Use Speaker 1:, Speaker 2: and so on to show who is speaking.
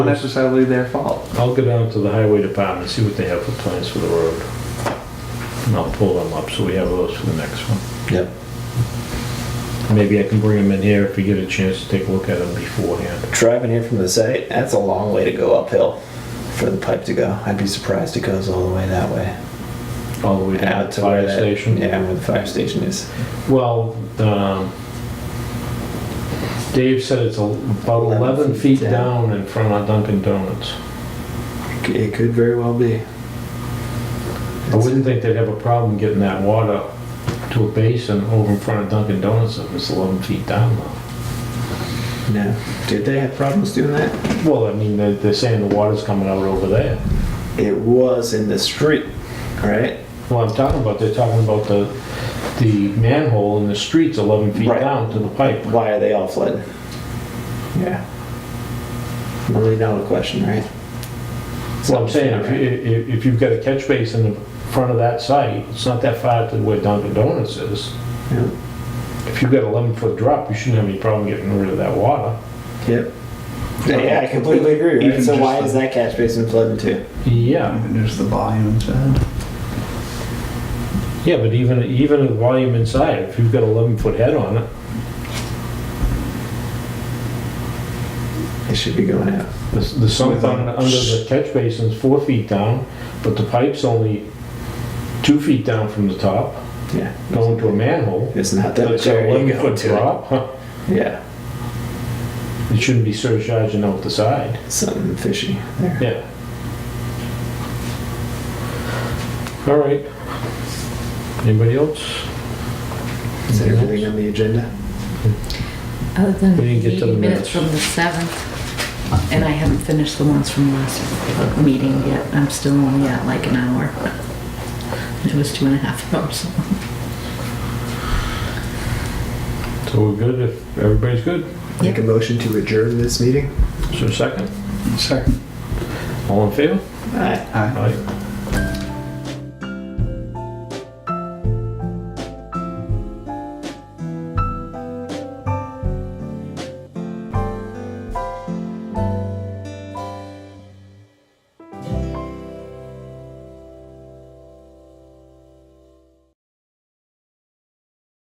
Speaker 1: necessarily their fault.
Speaker 2: I'll go down to the highway department, see what they have for plans for the road. And I'll pull them up, so we have those for the next one.
Speaker 3: Yep.
Speaker 2: Maybe I can bring them in here if we get a chance to take a look at them beforehand.
Speaker 3: Driving here from the site, that's a long way to go uphill for the pipe to go. I'd be surprised it goes all the way that way.
Speaker 2: All the way down
Speaker 3: Out
Speaker 2: to
Speaker 3: to
Speaker 2: the fire
Speaker 3: where that-
Speaker 2: station.
Speaker 3: Yeah, where the fire station is.
Speaker 2: Well, um, Dave said it's a- about
Speaker 3: 11
Speaker 2: 11
Speaker 3: feet
Speaker 2: feet
Speaker 3: down.
Speaker 2: down in front of Dunkin' Donuts.
Speaker 3: It could very well be. Oh,
Speaker 2: I wouldn't think they'd have a problem getting that water to a basin over in front of Dunkin' Donuts if it's 11 feet down though.
Speaker 3: No. Did they have problems doing that?
Speaker 2: Well, I mean, they're, they're saying the water's coming out over there.
Speaker 3: It was in the street, right?
Speaker 2: Well, I'm talking about, they're talking about the, the manhole in the streets 11 feet
Speaker 3: Right.
Speaker 2: down to the pipe.
Speaker 3: Why are they all flooded? Yeah. Really not a question, right?
Speaker 2: Well, I'm saying, if, you- if, if you've got a catch basin in front of that site, it's not that far to where Dunkin' Donuts is.
Speaker 3: Yeah.
Speaker 2: If you've got 11-foot drop, you shouldn't have any problem getting rid of that water.
Speaker 3: Yep. Yeah, I completely agree. Right?
Speaker 1: Even
Speaker 3: So
Speaker 1: just
Speaker 3: why
Speaker 1: the-
Speaker 3: is that catch basin flooded too?
Speaker 2: Yeah,
Speaker 1: And there's the volume uh, inside.
Speaker 2: yeah, but even, even the volume inside, if you've got 11-foot head on it,
Speaker 3: It should be going out.
Speaker 2: The the sump on- under the catch basin's four feet down, but the pipe's only two feet down from the top,
Speaker 3: Yeah.
Speaker 2: going to a manhole.
Speaker 3: It's not that
Speaker 2: That's
Speaker 3: much
Speaker 2: an
Speaker 3: area you
Speaker 2: 11
Speaker 3: go
Speaker 2: foot
Speaker 3: to.
Speaker 2: drop. huh?
Speaker 3: Yeah.
Speaker 2: It shouldn't be surcharging out the side.
Speaker 3: Something fishy there.
Speaker 2: Yeah. All right. Anybody else?
Speaker 3: Is that everything on the agenda?
Speaker 4: Other than
Speaker 2: We didn't get to the
Speaker 4: the minutes from
Speaker 2: minutes.
Speaker 4: the 7th, and I haven't finished the ones from last meeting yet. I'm still only at like an hour. It was two and a half hours.
Speaker 2: So we're good if everybody's good?
Speaker 3: Make a motion to adjourn this meeting?
Speaker 2: So second,
Speaker 1: Second.
Speaker 2: all in favor?
Speaker 3: Aye.
Speaker 1: Aye.
Speaker 2: Aye.